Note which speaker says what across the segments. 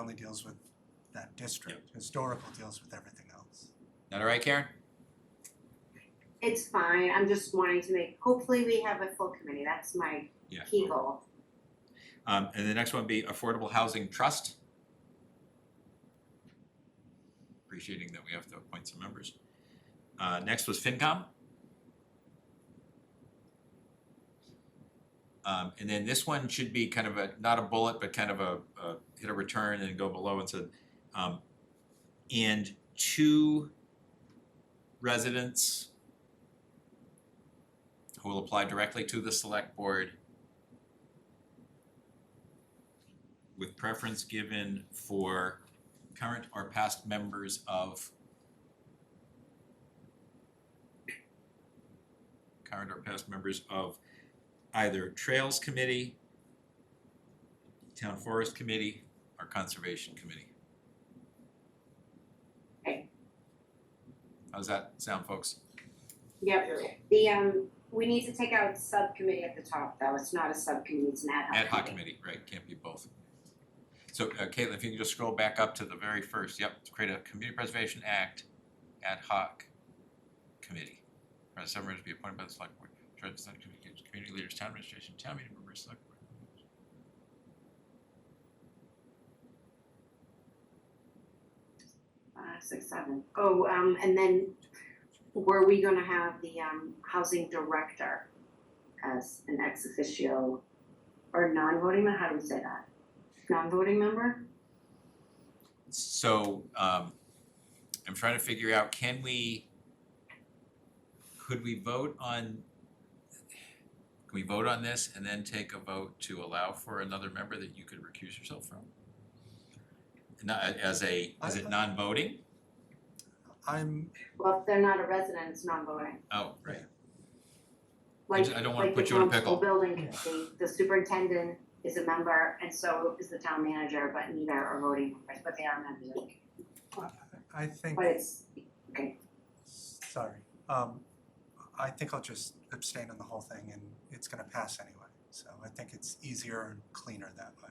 Speaker 1: only deals with that district. Historical deals with everything else.
Speaker 2: That all right, Karen?
Speaker 3: It's fine, I'm just wanting to make, hopefully we have a full committee, that's my
Speaker 2: Yeah.
Speaker 3: key goal.
Speaker 2: Um, and the next one would be Affordable Housing Trust. Appreciating that we have to appoint some members. Uh, next was FinCom. Um, and then this one should be kind of a, not a bullet, but kind of a, a hit a return and go below and said, um, and two residents who will apply directly to the select board with preference given for current or past members of current or past members of either Trails Committee, Town Forest Committee, or Conservation Committee.
Speaker 3: Okay.
Speaker 2: How's that sound, folks?
Speaker 3: Yep, the um, we need to take out subcommittee at the top though, it's not a subcommittee, it's an ad hoc
Speaker 2: Ad hoc committee, right, can't be both. So uh, Caitlin, if you can just scroll back up to the very first, yep, to create a Community Preservation Act ad hoc committee. Right, seven members be appointed by the select board, Treasurer, Senate communications, community leaders, town administration, town meeting members, select board. members.
Speaker 3: Uh, six, seven. Oh, um, and then were we gonna have the um, housing director as an ex officio or non-voting, member? how do we say that? Non-voting member?
Speaker 2: So um I'm trying to figure out, can we could we vote on can we vote on this and then take a vote to allow for another member that you could recuse yourself from? Not as a, is it non-voting?
Speaker 1: I'm,
Speaker 3: Well, if they're not a resident, it's non-voting.
Speaker 2: Oh, right, I
Speaker 3: Like,
Speaker 2: just- I don't wanna
Speaker 3: like the
Speaker 2: put you in a pickle.
Speaker 3: council building committee, the superintendent is a member and so is the town manager, but neither are voting members, but they are members of the committee.
Speaker 1: I think,
Speaker 3: But it's,
Speaker 1: sorry, um, I think I'll just abstain on the whole thing and it's gonna pass anyway. So I think it's easier and cleaner that way.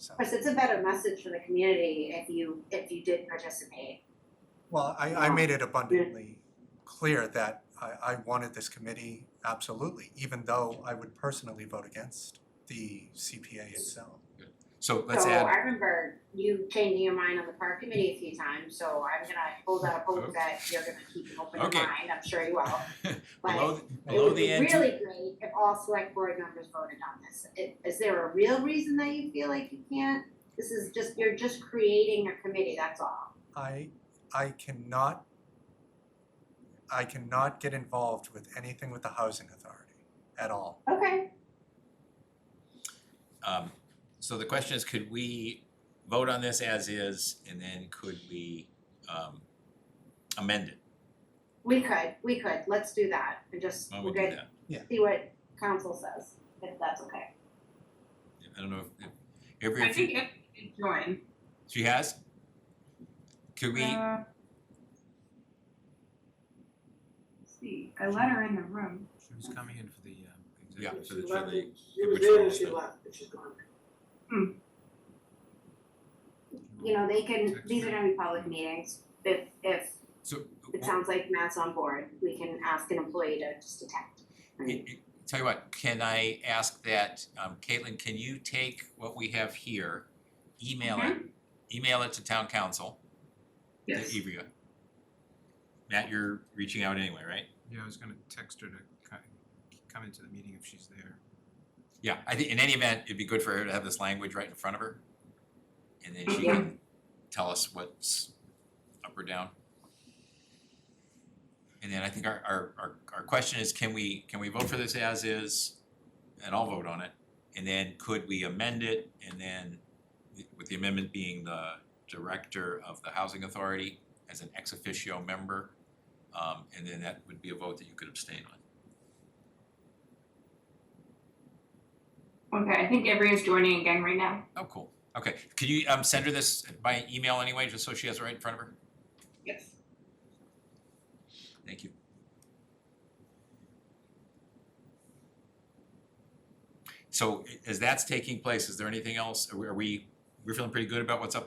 Speaker 1: So,
Speaker 3: of course, it's a better message for the community if you, if you did participate.
Speaker 1: well, I, I made it abundantly clear that I, I wanted this committee, absolutely, even though I would personally vote against the CPA itself.
Speaker 2: so let's
Speaker 3: so
Speaker 2: add,
Speaker 3: I remember you changing your mind on the park committee a few times, so I'm gonna hold out
Speaker 2: Okay.
Speaker 3: hope that you're gonna keep an open mind,
Speaker 2: Oh. Okay.
Speaker 3: I'm sure you will.
Speaker 2: below,
Speaker 3: But it
Speaker 2: below
Speaker 3: would
Speaker 2: the
Speaker 3: be
Speaker 2: end,
Speaker 3: really great if all select board members voted on this. I- Is there a real reason that you feel like you can't? This is just, you're just creating a committee, that's all.
Speaker 1: I I cannot I cannot get involved with anything with the housing authority at all.
Speaker 3: Okay.
Speaker 2: um, so the question is, could we vote on this as is and then could we um amend it?
Speaker 3: We could, we could, let's do that, and just,
Speaker 2: Why don't
Speaker 3: we'll
Speaker 2: we do that?
Speaker 3: get, see what council says, if that's okay.
Speaker 2: I don't know if, if every,
Speaker 4: I
Speaker 2: if you-
Speaker 4: think if you join,
Speaker 2: she has? Could we,
Speaker 4: uh, let's see, I let her in the room.
Speaker 5: She was coming in for the um,
Speaker 2: yeah,
Speaker 5: executive.
Speaker 2: for the, for the,
Speaker 3: She
Speaker 2: was there and she
Speaker 3: left, but she's gone. You
Speaker 5: Yeah.
Speaker 3: know, they can, these are gonna be public meetings, if, if
Speaker 2: so,
Speaker 3: it sounds like Matt's on board, we can ask an employee to just attend.
Speaker 2: it- it- tell you what, can I ask that, um, Caitlin, can you take what we have here, email it,
Speaker 4: Mm-hmm.
Speaker 2: email it to town council, to Ivrea? Matt, you're reaching out anyway, right?
Speaker 5: Yeah, I was gonna text her to ki- come into the meeting if she's there.
Speaker 2: Yeah, I think in any event, it'd be good for her to have this language right in front of her. And then she
Speaker 3: Yeah.
Speaker 2: can tell us what's up or down. And then I think our our our our question is, can we can we vote for this as is? And I'll vote on it. And then could we amend it? And then with the amendment being the director of the housing authority as an ex officio member. Um and then that would be a vote that you could abstain on.
Speaker 4: Okay, I think everyone's joining again right now.
Speaker 2: Oh, cool. Okay, could you um send her this by email anyway, just so she has it right in front of her?
Speaker 4: Yes.
Speaker 2: Thank you. So i- as that's taking place, is there anything else? Are we- are we, we're feeling pretty good about what's up there?